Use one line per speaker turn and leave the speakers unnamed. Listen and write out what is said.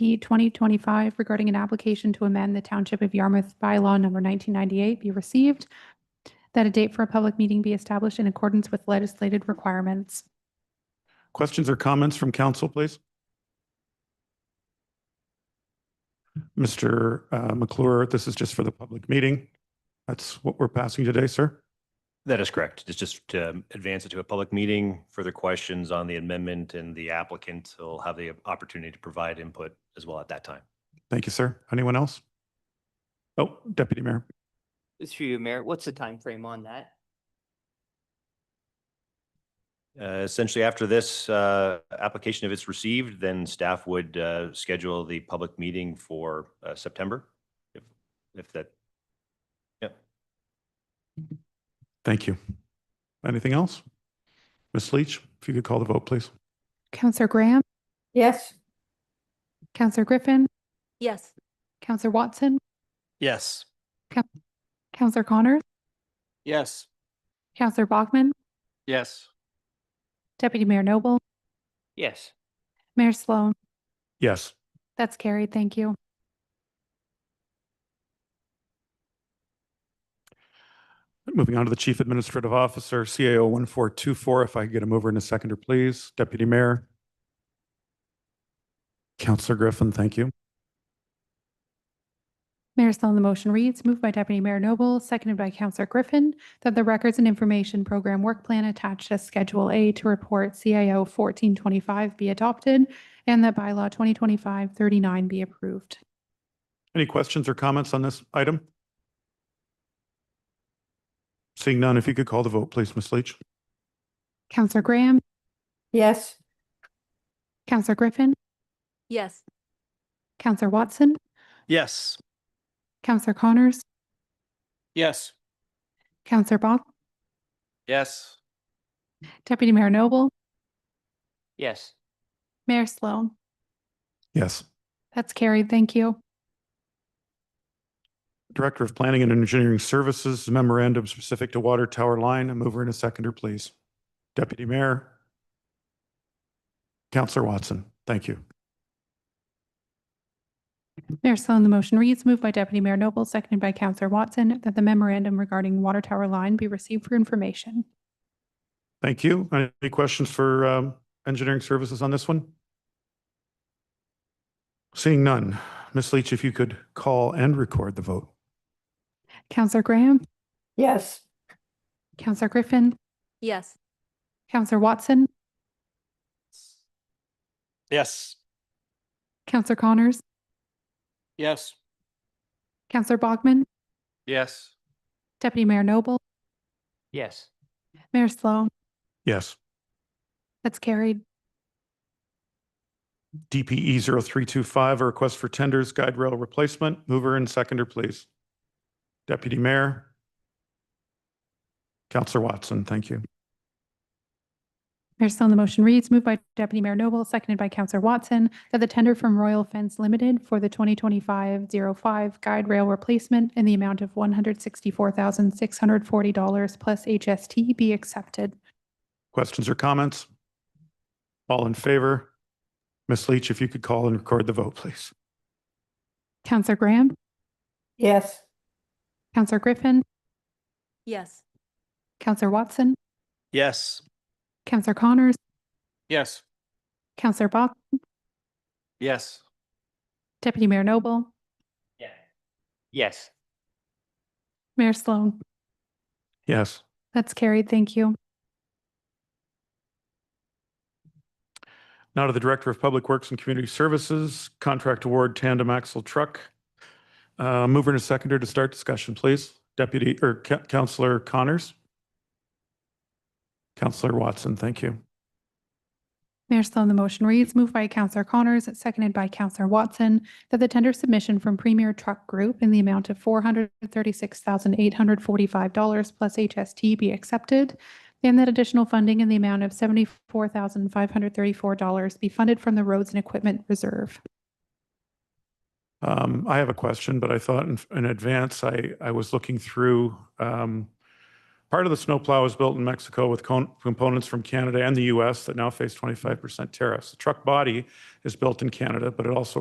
P 2025 regarding an application to amend the Township of Yarmouth bylaw number 1998 be received, that a date for a public meeting be established in accordance with legislated requirements.
Questions or comments from council, please? Mr. uh, McClure, this is just for the public meeting. That's what we're passing today, sir.
That is correct. It's just to advance it to a public meeting. Further questions on the amendment and the applicant will have the opportunity to provide input as well at that time.
Thank you, sir. Anyone else? Oh, Deputy Mayor.
Through you, Mayor, what's the time frame on that?
Uh, Essentially, after this uh, application, if it's received, then staff would uh, schedule the public meeting for uh, September. If if that,
Thank you. Anything else? Ms. Leach, if you could call the vote, please.
Counselor Graham,
Yes.
Counselor Griffin,
Yes.
Counselor Watson,
Yes.
Counselor Connors,
Yes.
Counselor Bachman,
Yes.
Deputy Mayor Noble,
Yes,
Mayor Sloan.
Yes.
That's carried. Thank you.
Moving on to the Chief Administrative Officer, CAO 1424, if I could get him over in a second, or please. Deputy Mayor. Counselor Griffin, thank you.
Mayor Sloan, the motion reads, moved by Deputy Mayor Noble, seconded by Counselor Griffin, that the Records and Information Program Work Plan attached as Schedule A to Report CIO 1425 be adopted and that bylaw 2025-39 be approved.
Any questions or comments on this item? Seeing none, if you could call the vote, please, Ms. Leach.
Counselor Graham,
Yes.
Counselor Griffin,
Yes.
Counselor Watson,
Yes.
Counselor Connors,
Yes.
Counselor Bach,
Yes.
Deputy Mayor Noble,
yes,
Mayor Sloan.
Yes.
That's carried. Thank you.
Director of Planning and Engineering Services memorandum specific to water tower line. I'm over in a seconder, please. Deputy Mayor. Counselor Watson, thank you.
Mayor Sloan, the motion reads, moved by Deputy Mayor Noble, seconded by Counselor Watson, that the memorandum regarding water tower line be received for information.
Thank you. Any questions for um, engineering services on this one? Seeing none, Ms. Leach, if you could call and record the vote.
Counselor Graham,
Yes.
Counselor Griffin,
Yes.
Counselor Watson,
Yes.
Counselor Connors,
Yes.
Counselor Bogman,
Yes.
Deputy Mayor Noble,
yes,
Mayor Sloan.
Yes.
That's carried.
DPE 0325, a request for tenders, guide rail replacement. Mover and seconder, please. Deputy Mayor. Counselor Watson, thank you.
Mayor Sloan, the motion reads, moved by Deputy Mayor Noble, seconded by Counselor Watson, that the tender from Royal Fence Limited for the 2025-05 guide rail replacement in the amount of $164,640 plus HST be accepted.
Questions or comments? All in favor? Ms. Leach, if you could call and record the vote, please.
Counselor Graham,
Yes.
Counselor Griffin,
Yes.
Counselor Watson,
Yes.
Counselor Connors,
Yes.
Counselor Bach,
Yes.
Deputy Mayor Noble,
yes.
Mayor Sloan.
Yes.
That's carried. Thank you.
Now to the Director of Public Works and Community Services, contract award tandem axle truck. Uh, Mover and a seconder to start discussion, please. Deputy, or Ca- Counselor Connors? Counselor Watson, thank you.
Mayor Sloan, the motion reads, moved by Counselor Connors, seconded by Counselor Watson, that the tender submission from Premier Truck Group in the amount of four hundred thirty-six thousand eight hundred forty-five dollars plus HST be accepted, and that additional funding in the amount of seventy-four thousand five hundred thirty-four dollars be funded from the Roads and Equipment Reserve.
Um, I have a question, but I thought in, in advance, I, I was looking through, um, part of the snowplow was built in Mexico with con- components from Canada and the US that now face 25% tariffs. The truck body is built in Canada, but it also